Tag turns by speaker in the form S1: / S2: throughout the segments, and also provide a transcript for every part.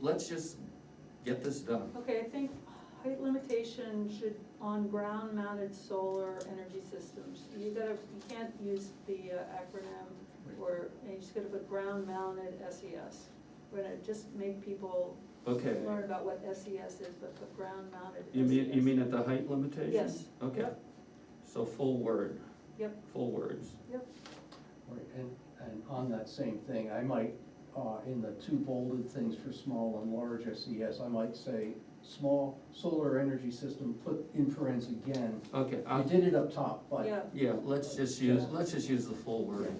S1: let's just get this done.
S2: Okay, I think height limitation should, on ground mounted solar energy systems, you gotta, you can't use the uh, acronym or, and you just gotta put ground mounted SES. We're gonna just make people
S1: Okay,
S2: learn about what SES is, but put E ground mounted SES.
S1: you mean, you mean at the height limitation?
S2: Yes.
S1: Okay,
S2: Yep.
S1: so full word.
S2: Yep.
S1: Full words.
S2: Yep,
S3: Right, and, and on that same thing, I might, uh, in the two bolded things for small and large SES, I might say, small solar energy system, put in parentheses again.
S1: Okay,
S3: I
S1: I,
S3: did it up top,
S2: yeah,
S3: but,
S1: yeah, let's just use, let's just use the full word.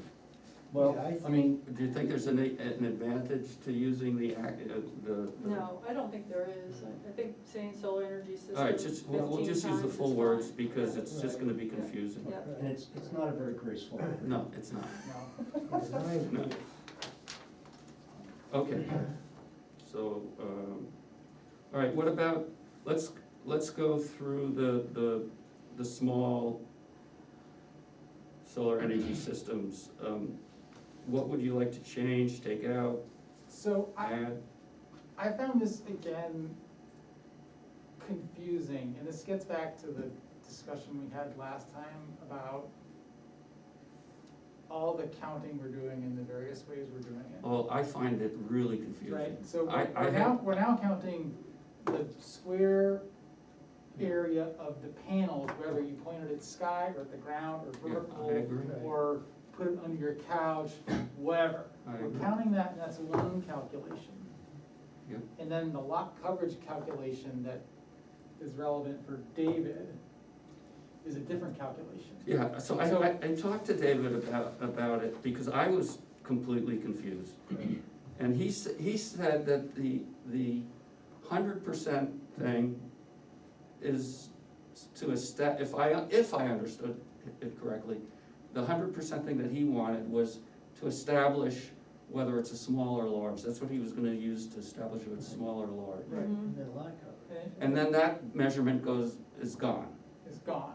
S3: well,
S4: Yeah, I
S3: I mean,
S1: Do you think there's an, an advantage to using the, ac- uh, the? the-
S2: no, I don't think there is, I I think saying solar energy system
S1: All right, just, we'll, we'll
S2: 15
S1: just use the
S2: times
S1: full
S2: is
S1: words
S2: fine.
S1: because it's just gonna be
S2: Yeah.
S1: confusing.
S2: Yeah.
S3: and it's, it's not a very graceful.
S1: No, it's not,
S4: No, in my
S1: no.
S4: view,
S1: Okay, so, um, all right, what about, let's, let's go through the, the, the small solar energy systems. Um, What would you like to change, take out,
S5: So I,
S1: add?
S5: I found this again confusing, and this gets back to the discussion we had last time about all the counting we're doing and the various ways we're doing it.
S1: Well, I find it really confusing.
S5: Right, so
S1: Oh, I-
S5: we're
S1: I
S5: we're
S1: have-
S5: now, we're now counting the square
S1: Yeah.
S5: area of the panels, whether you pointed at sky or at the ground or
S1: Yeah, I
S5: vertical,
S1: agree.
S5: or put it under your couch, whatever.
S1: I
S5: We're
S1: agree.
S5: counting that, and that's one calculation.
S1: Yeah.
S5: And then the lot coverage calculation that is relevant for David is a different calculation.
S1: Yeah, so I,
S5: So-
S1: I, I talked to David about, about it, because I was completely confused. And he, s- he said that the, the hundred percent thing is to a stat, if I, if I understood it correctly, the hundred percent thing that he wanted was to establish whether it's a small or large, that's what he was gonna use to establish if it's small or large.
S5: Right.
S2: Mhm.
S3: And then lack of it.
S5: And-
S1: And then that measurement goes, is gone.
S5: It's gone.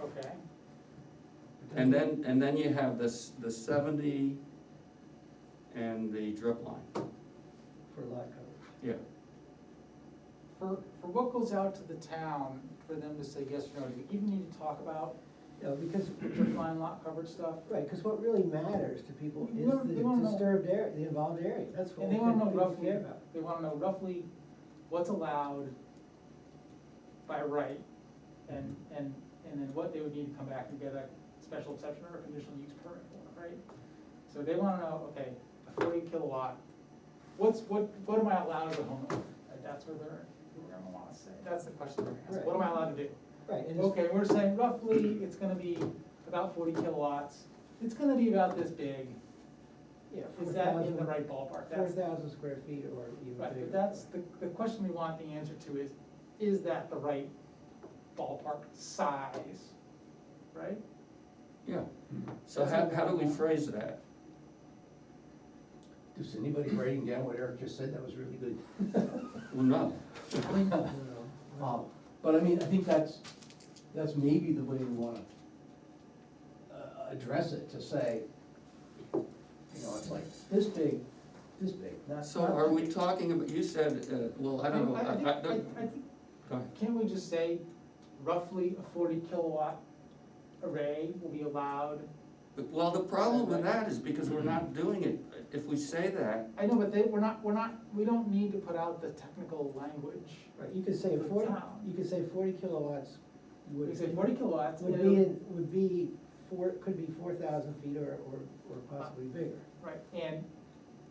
S5: Okay,
S1: And then, and then you have this, the seventy and the drip line,
S3: For lack of.
S1: yeah.
S5: for, for what goes out to the town, for them to say yes or no, do we even need to talk about
S4: No, because,
S5: defined lot coverage stuff?
S4: right, because what really matters to people
S5: They
S4: is
S5: wanna- they wanna
S4: the
S5: know-
S4: disturbed area, the involved area, that's what
S5: And they wanna know
S4: people
S5: roughly,
S4: care about.
S5: they wanna know roughly what's allowed by right, and, and, and then what they would need to come back and get a special exception or a conditional use permit for, right? So they wanna know, okay, a forty kilowatt, what's, what, what am I allowed as a homeowner? Right, That's where they're, they're gonna wanna say, that's the question they're gonna ask, what am I allowed to do?
S4: Right, and it's,
S5: Okay, we're saying roughly, it's gonna be about forty kilowatts, it's gonna be about this big,
S4: yeah,
S5: is that in the
S4: 4,000
S5: right ballpark?
S4: Four
S5: That's-
S4: thousand square feet or even bigger.
S5: Right, but that's, the, the question we want the answer to is, is that the right ballpark size, right?
S1: Yeah, so how, how do we phrase that?
S3: Is anybody writing down what Eric just said? That was really good.
S1: Well, no,
S4: You know,
S3: Um, But I mean, I think that's, that's maybe the way we wanna uh, address it, to say, you know, it's like this big, this big, not.
S1: so
S3: not-
S1: are we talking about, you said, uh, well, I don't know, I, I,
S5: think-
S1: don't-
S5: I think,
S1: go ahead.
S5: can't we just say roughly a forty kilowatt array will be allowed?
S1: But- well, the problem with that is because we're not doing it, if we say that,
S5: I know, but they, we're not, we're not, we don't need to put out the technical language.
S4: Right, you could say
S5: For
S4: forty,
S5: town.
S4: you could say forty kilowatts would.
S5: We say forty kilowatts,
S4: Would
S5: and
S4: be,
S5: it'll-
S4: in- would be four, could be four thousand feet or, or, or possibly bigger.
S5: right, and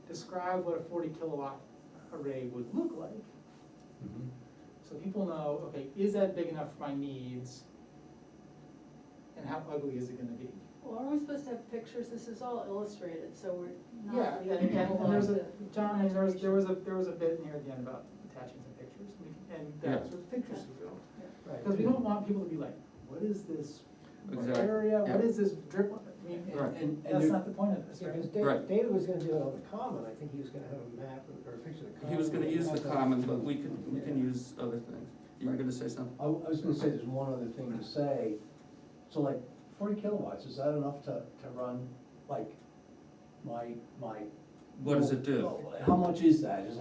S5: describe what a forty kilowatt array would look like.
S3: Mhm.
S5: So people know, okay, is that big enough for my needs? And how ugly is it gonna be?
S2: well, aren't we supposed to have pictures, this is all illustrated, so we're
S5: Yeah,
S2: not
S5: and,
S2: leaving
S5: and
S2: people
S5: and there's a,
S2: up to
S5: John, and there was,
S2: imagination.
S5: there was a, there was a bit in here at the end about attaching some pictures, and we- and that's what pictures we built.
S4: Right.
S5: Because we don't want people to be like, what is this
S1: Exactly,
S5: area, what
S1: yeah.
S5: is this drip, I mean,
S1: Right.
S3: And, and
S5: that's
S3: there-
S5: not the point of this,
S4: Yeah,
S5: right?
S4: because
S1: Right.
S4: David, David was gonna do it on the common, I think he was gonna have a map or a picture of the common.
S1: he was gonna use the
S4: and have
S1: common, but we can, we can use other things. You were gonna say something?
S3: I, I was gonna say, there's one other thing to say, so like, forty kilowatts, is that enough to, to run, like, my, my?
S1: What does it do?
S3: How much is that? Is